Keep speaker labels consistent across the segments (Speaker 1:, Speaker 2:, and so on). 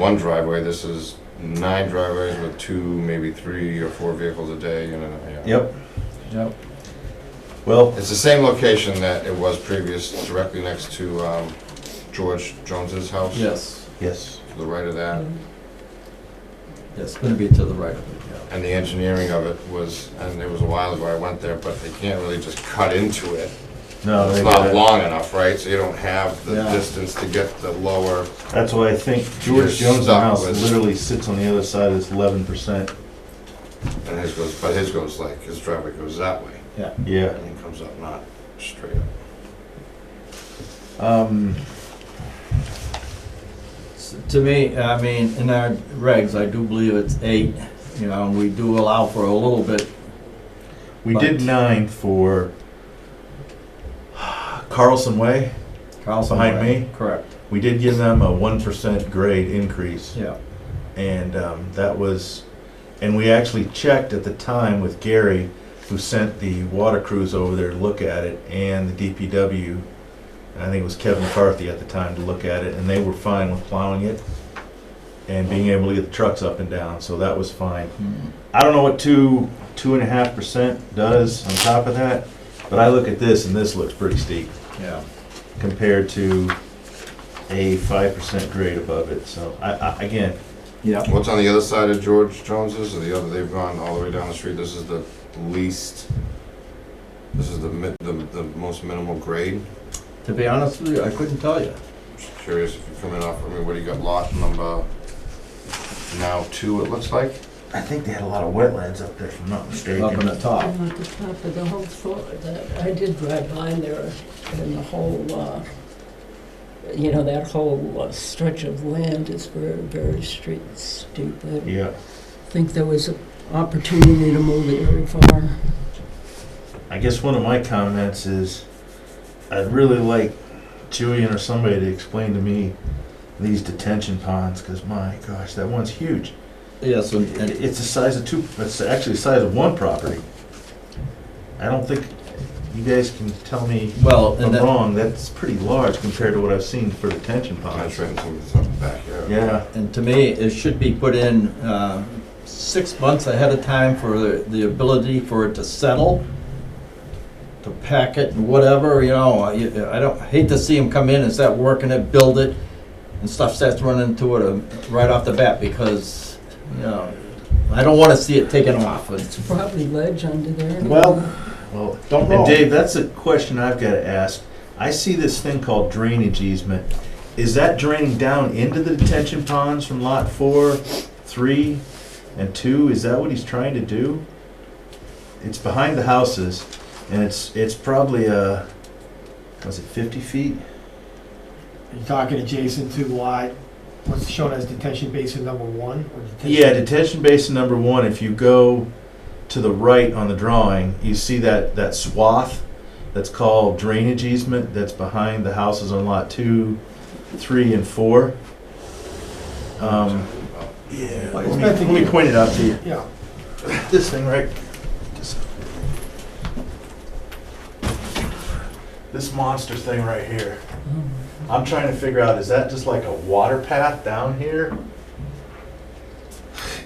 Speaker 1: one driveway, this is nine driveways with two, maybe three or four vehicles a day, you know, yeah.
Speaker 2: Yep,
Speaker 3: Yep.
Speaker 2: well,
Speaker 1: It's the same location that it was previous, directly next to um, George Jones's house.
Speaker 3: Yes,
Speaker 2: yes,
Speaker 1: To the right of that,
Speaker 3: yes, gonna be to the right of it, yeah.
Speaker 1: and the engineering of it was, and it was a while ago I went there, but they can't really just cut into it.
Speaker 2: no,
Speaker 1: It's
Speaker 2: they
Speaker 1: not
Speaker 2: got it.
Speaker 1: long enough, right? So you don't have the
Speaker 3: Yeah.
Speaker 1: distance to get the lower,
Speaker 2: That's why I think
Speaker 1: George
Speaker 2: George Jones'
Speaker 1: Stop
Speaker 2: house
Speaker 1: was-
Speaker 2: literally sits on the other side of this eleven percent,
Speaker 1: and his goes, but his goes like, his driveway goes that way,
Speaker 2: yeah.
Speaker 1: and he comes up not straight up.
Speaker 2: Um,
Speaker 3: S- To me, I mean, in our regs, I do believe it's eight, you know, and we do allow for a little bit.
Speaker 2: we did
Speaker 3: But-
Speaker 2: nine for Carlson Way,
Speaker 3: Carlson
Speaker 2: Behind
Speaker 3: Way.
Speaker 2: me?
Speaker 3: Correct,
Speaker 2: we did give them a one percent grade increase.
Speaker 3: yeah,
Speaker 2: And um, that was, and we actually checked at the time with Gary, who sent the water crews over there to look at it, and the DPW, I think it was Kevin McCarthy at the time, to look at it, and they were fine with plowing it and being able to get the trucks up and down, so that was fine.
Speaker 3: Mm.
Speaker 2: I don't know what two, two and a half percent does on top of that, but I look at this, and this looks pretty steep
Speaker 3: yeah.
Speaker 2: compared to a five percent grade above it, so I, I, again,
Speaker 3: Yeah.
Speaker 1: What's on the other side of George Jones's, or the other, they've gone all the way down the street, this is the least, this is the mi- the, the most minimal grade?
Speaker 3: To be honest with you, I couldn't tell you.
Speaker 1: Just curious if you're coming off, I mean, what do you got, lot number now two, it looks like?
Speaker 2: I think they had a lot of wetlands up there, if I'm not mistaken.
Speaker 3: Up in the top,
Speaker 4: I'm at the top of the whole floor, that, I did drive by there, and the whole, uh, you know, that whole uh, stretch of land is very, very street steep. I
Speaker 2: Yeah,
Speaker 4: think there was an opportunity to move it very far.
Speaker 2: I guess one of my comments is, I'd really like Julian or somebody to explain to me these detention ponds, because my gosh, that one's huge.
Speaker 3: yes, and,
Speaker 2: It-
Speaker 3: and
Speaker 2: It's the size of two, it's actually the size of one property. I don't think, you guys can tell me
Speaker 3: Well,
Speaker 2: if
Speaker 3: and
Speaker 2: I'm
Speaker 3: that,
Speaker 2: wrong, that's pretty large compared to what I've seen for detention
Speaker 1: That's
Speaker 2: ponds.
Speaker 1: right, something's up back here.
Speaker 2: Uh-huh. Yeah,
Speaker 3: and to me, it should be put in, uh, six months ahead of time for the, the ability for it to settle, to pack it and whatever, you know, I, I don't, I hate to see them come in and start working it, build it, and stuff starts running to it um, right off the bat, because, you know, I don't wanna see it taken off.
Speaker 4: It's probably ledge under there.
Speaker 3: Well-
Speaker 2: well,
Speaker 3: Don't
Speaker 2: And Dave, that's a question I've got to ask. I see this thing called drainage easement. Is that draining down into the detention ponds from lot four, three, and two? Is that what he's trying to do? It's behind the houses, and it's, it's probably a, was it fifty feet?
Speaker 5: You're talking adjacent to lot, what's shown as detention basin number one? or detention-
Speaker 2: Yeah, detention basin number one, if you go to the right on the drawing, you see that, that swath that's called drainage easement that's behind the houses on lot two, three, and four. Um, yeah, let me, let me point it out to you.
Speaker 5: Yeah,
Speaker 2: This thing, right? This monster thing right here. I'm trying to figure out, is that just like a water path down here?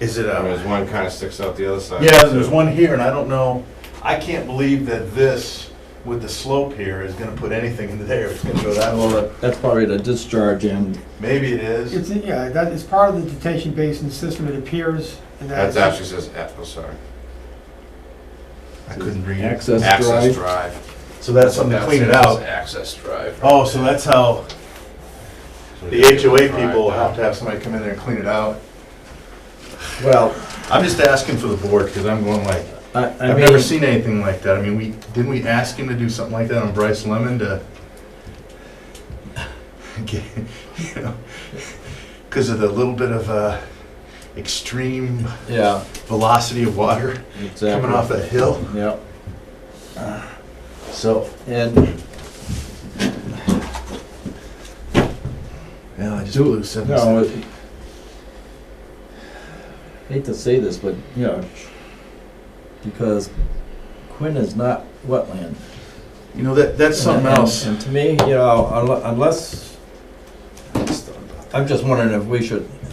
Speaker 2: Is it um,
Speaker 1: I mean,
Speaker 2: a?
Speaker 1: There's one kinda sticks out the other side.
Speaker 2: Yeah, there's one here, and I don't know, I can't believe that this, with the slope here, is gonna put anything into there, it's gonna go that low.
Speaker 3: That's probably the discharge end.
Speaker 2: Maybe it is.
Speaker 5: it's, yeah, that is part of the detention basin system, it appears, and
Speaker 1: That's
Speaker 5: that's.
Speaker 1: actually says, F- oh, sorry,
Speaker 2: I couldn't read it.
Speaker 3: Access
Speaker 1: access
Speaker 3: drive.
Speaker 1: drive.
Speaker 2: So that's something to
Speaker 1: That
Speaker 2: clean it
Speaker 1: says
Speaker 2: out.
Speaker 1: Access drive.
Speaker 2: Oh, so that's how the HOA people have to have somebody come in there and clean it out.
Speaker 3: Well,
Speaker 2: I'm just asking for the board, because I'm going like,
Speaker 3: I, I mean.
Speaker 2: I've never seen anything like that. I mean, we, didn't we ask him to do something like that on Bryce Lemon to? Because of the little bit of uh, extreme
Speaker 3: Yeah,
Speaker 2: velocity of water
Speaker 3: exactly.
Speaker 2: coming off that hill.
Speaker 3: Yep.
Speaker 2: So,
Speaker 3: And,
Speaker 2: yeah, I just blew seven.
Speaker 3: no, it- hate to say this, but, you know, because Quinn is not wetland.
Speaker 2: You know, that, that's something
Speaker 3: And-
Speaker 2: else.
Speaker 3: And to me, you know, unle- unless, I'm just wondering if we should